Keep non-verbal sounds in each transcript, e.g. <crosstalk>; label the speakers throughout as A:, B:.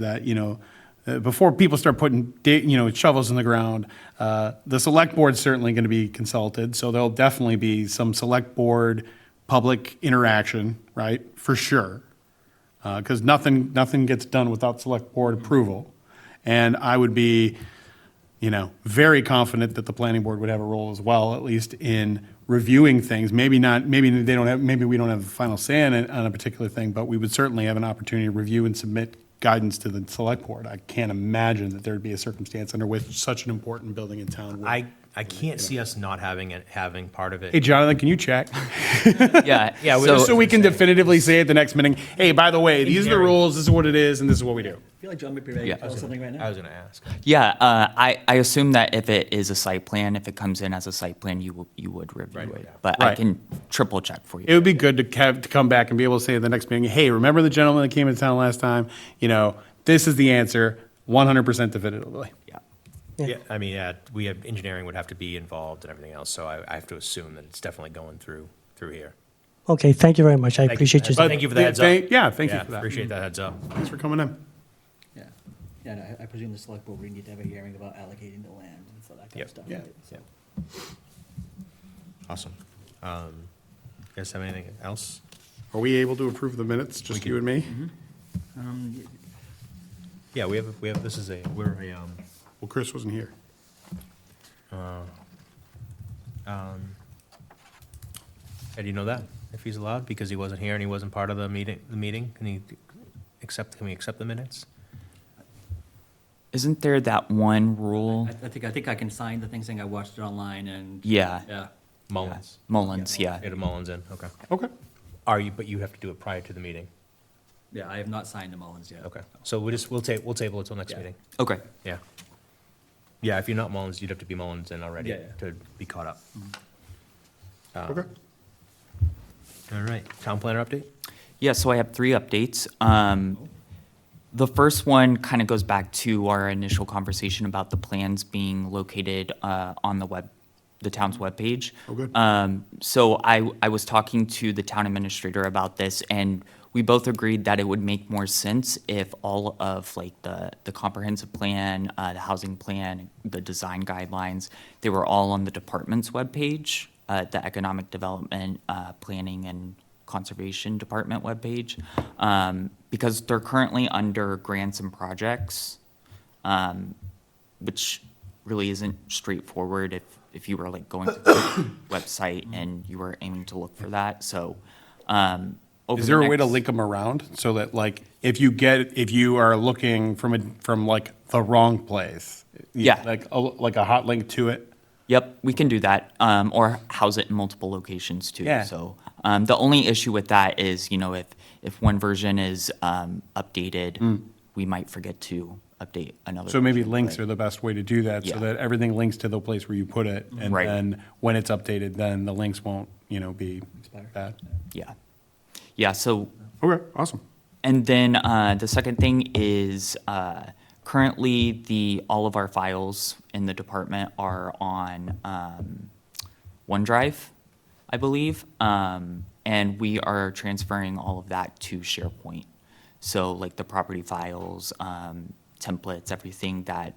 A: that, you know, uh, before people start putting, da- you know, shovels in the ground, uh, the select board's certainly going to be consulted, so there'll definitely be some select board public interaction, right, for sure. Because nothing, nothing gets done without select board approval. And I would be, you know, very confident that the planning board would have a role as well, at least in reviewing things. Maybe not, maybe they don't have, maybe we don't have the final say on, it- on a particular thing, but we would certainly have an opportunity to review and submit guidance to the select board. I can't imagine that there'd be a circumstance under which such an important building in town would.
B: I, I can't see us not having it, having part of it.
A: Hey, Jonathan, can you check?
C: <laughs> Yeah,
B: Yeah, we-
C: So,
A: So we can definitively say at the next meeting, hey, by the way, these are the rules, this is what it is, and this is what we do.
D: I feel like John might be ready
C: Yeah.
D: to tell us something right
B: I
D: now.
B: was gonna ask.
C: yeah, uh, I, I assume that if it is a site plan, if it comes in as a site plan, you will, you would review it. But I
A: Right.
C: can triple check for
A: It
C: you.
A: would be good to have, to come back and be able to say at the next meeting, hey, remember the gentleman that came to town last time? You know, this is the answer, one hundred percent definitively.
C: Yeah.
B: Yeah, I mean, yeah, we have, engineering would have to be involved and everything else, so I, I have to assume that it's definitely going through, through here.
E: Okay, thank you very much. I
B: you.
E: appreciate you.
B: But- Thank you for the heads up.
A: Thank- Yeah, thank you
B: Yeah,
A: for that. Mm-hmm.
B: appreciate that heads up.
A: Thanks for coming in.
D: Yeah, yeah, no, I- I presume the select board, we need to have a hearing about allocating the land and so that kind
B: Yep.
D: of stuff.
A: Yeah.
D: right? So-
B: Awesome. Um, You guys have anything else?
A: Are we able to approve the minutes, just you Mm-hmm. and me?
D: Um,
B: Yeah, we have, we have, this is a, we're a, um,
A: Well, Chris wasn't here.
B: how do you know that? If he's allowed, because he wasn't here and he wasn't part of the meeting, the meeting, can he accept, can we accept the minutes?
C: Isn't there that one rule?
D: I I think, I think I can sign the thing saying I watched it online and.
C: Yeah.
D: Yeah.
B: Mullins.
C: Mullins, yeah.
B: Get a Mullins in, okay.
A: Okay.
B: Are you, but you have to do it prior to the meeting,
D: Yeah, I have not signed the Mullins yet.
B: okay. So we just, we'll ta, we'll table it till next
D: Yeah.
B: meeting.
C: Okay.
B: Yeah. Yeah, if you're not Mullins, you'd have to be Mullins in already
D: Yeah, yeah. Mm-hmm.
B: to be caught up. Um,
A: Okay.
B: All right, town planner update?
C: Yeah, so I have three updates. Um, the first one kind of goes back to our initial conversation about the plans being located uh, on the web, the town's webpage.
A: Oh, good.
C: Um, so I, I was talking to the town administrator about this, and we both agreed that it would make more sense if all of like the, the comprehensive plan, uh, the housing plan, the design guidelines, they were all on the department's webpage, uh, the economic development, uh, planning and conservation department webpage, um, because they're currently under grants and projects um, which really isn't straightforward if, if you were like going to the
A: <coughs>
C: website and you were aiming to look for that, so. um, over
A: Is
C: the
A: there a way to
C: next-
A: link them around so that like, if you get, if you are looking from a, from like the wrong place? you-
C: Yeah.
A: Like, a- like a hot link to it?
C: Yep, we can do that, um, or house it in multiple locations too.
A: Yeah.
C: So um, the only issue with that is, you know, if if one version is um, updated, we might forget to update another.
A: Mm. So maybe
C: version,
A: links
C: but-
A: are the best way to do that, so
C: Yeah.
A: that everything links to the place where you put it. And
C: Right.
A: then when it's updated, then the links won't, you know, be
D: Expired.
A: bad.
C: Yeah, yeah. So
A: Okay, awesome.
C: And then uh, the second thing is uh, currently the all of our files in the department are on um, OneDrive, I believe, um, and we are transferring all of that to SharePoint. So like the property files, um, templates, everything that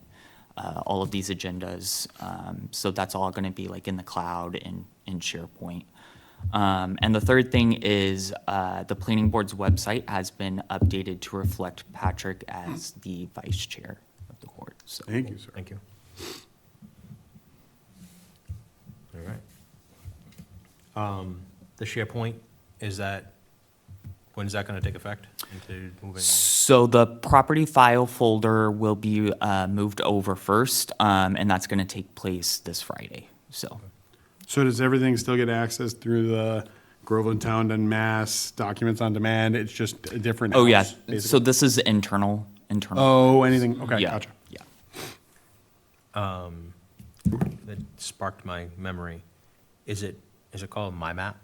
C: uh, all of these agendas. Um, so that's all going to be like in the cloud and in SharePoint. Um, and the third thing is uh, the planning board's website has been updated to reflect Patrick as the vice chair of the board. So
A: Thank you, sir.
B: Thank you. All right. Um, The SharePoint, is that, when is that gonna take effect into moving? on?
C: So the property file folder will be uh, moved over first, um, and that's going to take place this Friday. So
A: So does everything still get accessed through the Groveland Town and Mass Documents on Demand? It's just a different.
C: oh yeah,
A: house, basically?
C: so this is internal internal.
A: Oh, anything, okay,
C: yeah,
A: gotcha.
C: Yeah.
B: That sparked my memory. Is it, is it called My Map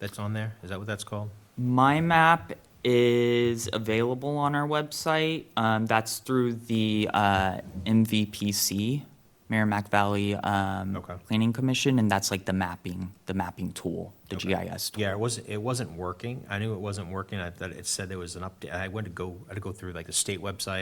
B: that's on there? Is that what that's called?
C: My map is available on our website. Um, that's through the uh, MVPC, Merrimack Valley um,
B: Okay.
C: Planning Commission, and that's like the mapping, the mapping tool, the GIS tool.
B: Yeah, it wasn't, it wasn't working. I knew it wasn't working. I thought it said there was an update. I went to go, I had to go through like the state website